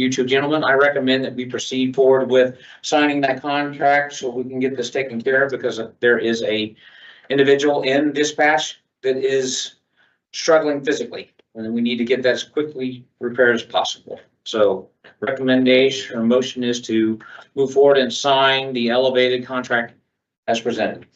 you two gentlemen, I recommend that we proceed forward with signing that contract so we can get this taken care of because there is a individual in dispatch that is struggling physically, and we need to get that as quickly repaired as possible. So recommendation or motion is to move forward and sign the elevated contract as presented.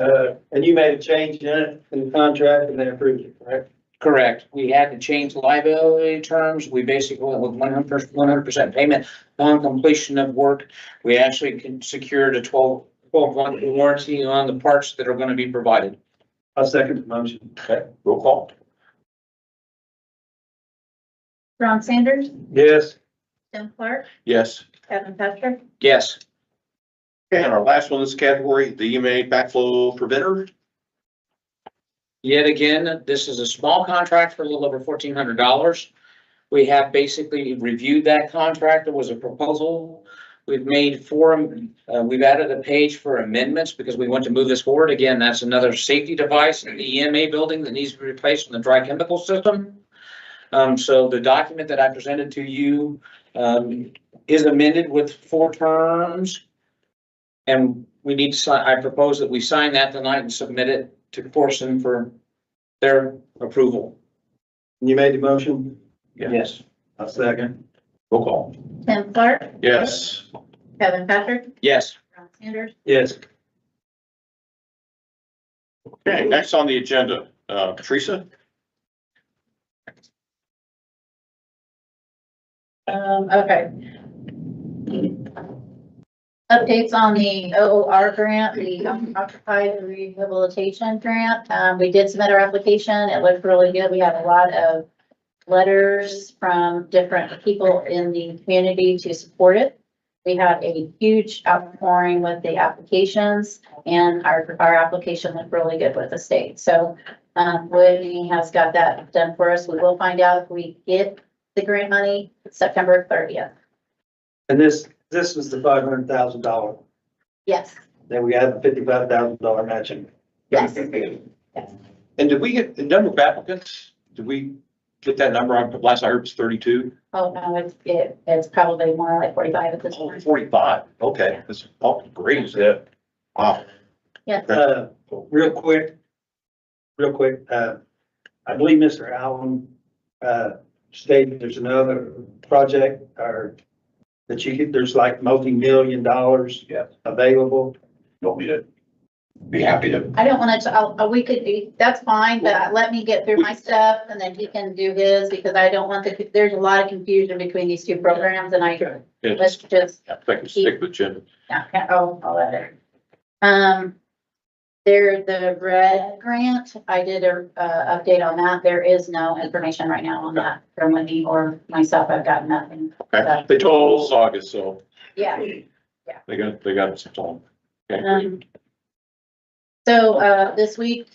Uh, and you made a change in it, in the contract, and they approved it, correct? Correct. We had to change the liability terms. We basically went with one hundred, one hundred percent payment on completion of work. We actually can secured a 12 12 month warranty on the parts that are gonna be provided. I second the motion. Okay, roll call. Ron Sanders, Yes. Jim Clark, Yes. Kevin Patrick, Yes, Okay, and our last one in this category, the EMA backflow preventer. yet again, this is a small contract for a little over fourteen hundred dollars. We have basically reviewed that contract. There was a proposal. We've made four, uh, we've added a page for amendments because we want to move this forward. Again, that's another safety device in the EMA building that needs to be replaced in the dry chemical system. Um, so the document that I presented to you, um, is amended with four terms. And we need to sign, I propose that we sign that tonight and submit it to Corson for their approval. You made the motion? Yeah. Yes. I second. Roll call. Jim Clark, Yes. Kevin Patrick, Yes. Ron Sanders, Yes. Okay, next on the agenda, uh, Teresa? um, okay. Updates on the OOR grant, the occupied rehabilitation grant. Um, we did submit our application. It looked really good. We had a lot of letters from different people in the community to support it. We had a huge outpouring with the applications and our, our application looked really good with the state. So, um, Whitney has got that done for us. We will find out if we get the grant money September thirtieth. And this, this was the five hundred thousand dollar, Yes, then we had the fifty-five thousand dollar matching. yes. And did we get the number of applicants? Did we get that number? I- Last I heard it was thirty-two. Oh, no, it's, it, it's probably more like forty-five at this Oh, point. Forty-five. Okay, that's all great. Yeah. Wow. Uh, real quick, real quick, uh, I believe Mr. Allen, uh, stated there's another project or that you could, there's like multi-million dollars Yes. available. Don't need it. Be happy to. I don't wanna, t- I'll- uh, we could do, that's fine, but let me get through my stuff and then he can do his because I don't want the, there's a lot of confusion between these two programs and I, Yeah, let's just I think we stick with Jim. Yeah, yeah, oh, I'll let it. Um, there, the red grant, I did a, uh, update on that. There is no information right now on that from Wendy or myself. I've got nothing. Okay, They told us August, so Yeah. they got, they got some time. Okay. Um, So, uh, this week,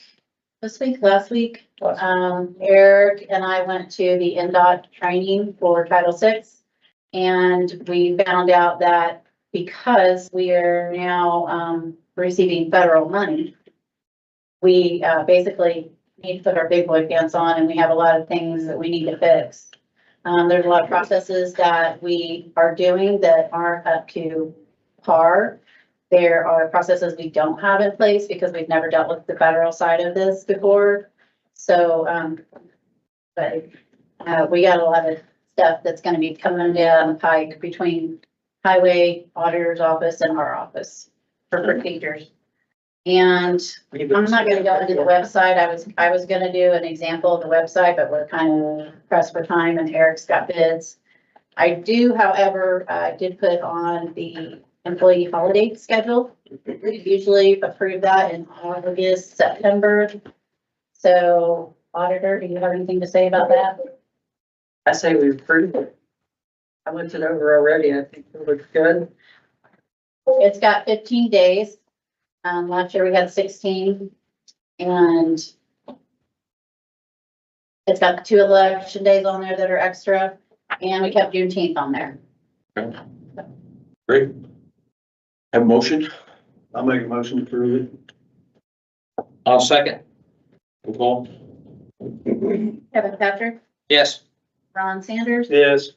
this week, last week, um, Eric and I went to the NDOT training for Title VI. And we found out that because we are now, um, receiving federal money, we, uh, basically need to put our big boy pants on and we have a lot of things that we need to fix. Um, there's a lot of processes that we are doing that aren't up to par. There are processes we don't have in place because we've never dealt with the federal side of this before. So, um, but, uh, we got a lot of stuff that's gonna be coming down the pike between highway auditor's office and our office for procedures. And I'm not gonna go into the website, I was, I was gonna do an example of the website, but we're kind of pressed for time and Eric's got bids. I do, however, I did put on the employee holiday schedule. We usually approve that in August, September. So auditor, do you have anything to say about that? I say we approve it. I looked it over already, and I think it looks good. It's got fifteen days. Um, last year we had sixteen and it's got two election days on there that are extra and we kept Juneteenth on there. Great. Have a motion? I'll make a motion to approve it. I'll second. Roll call. Kevin Patrick, Yes. Ron Sanders, Yes.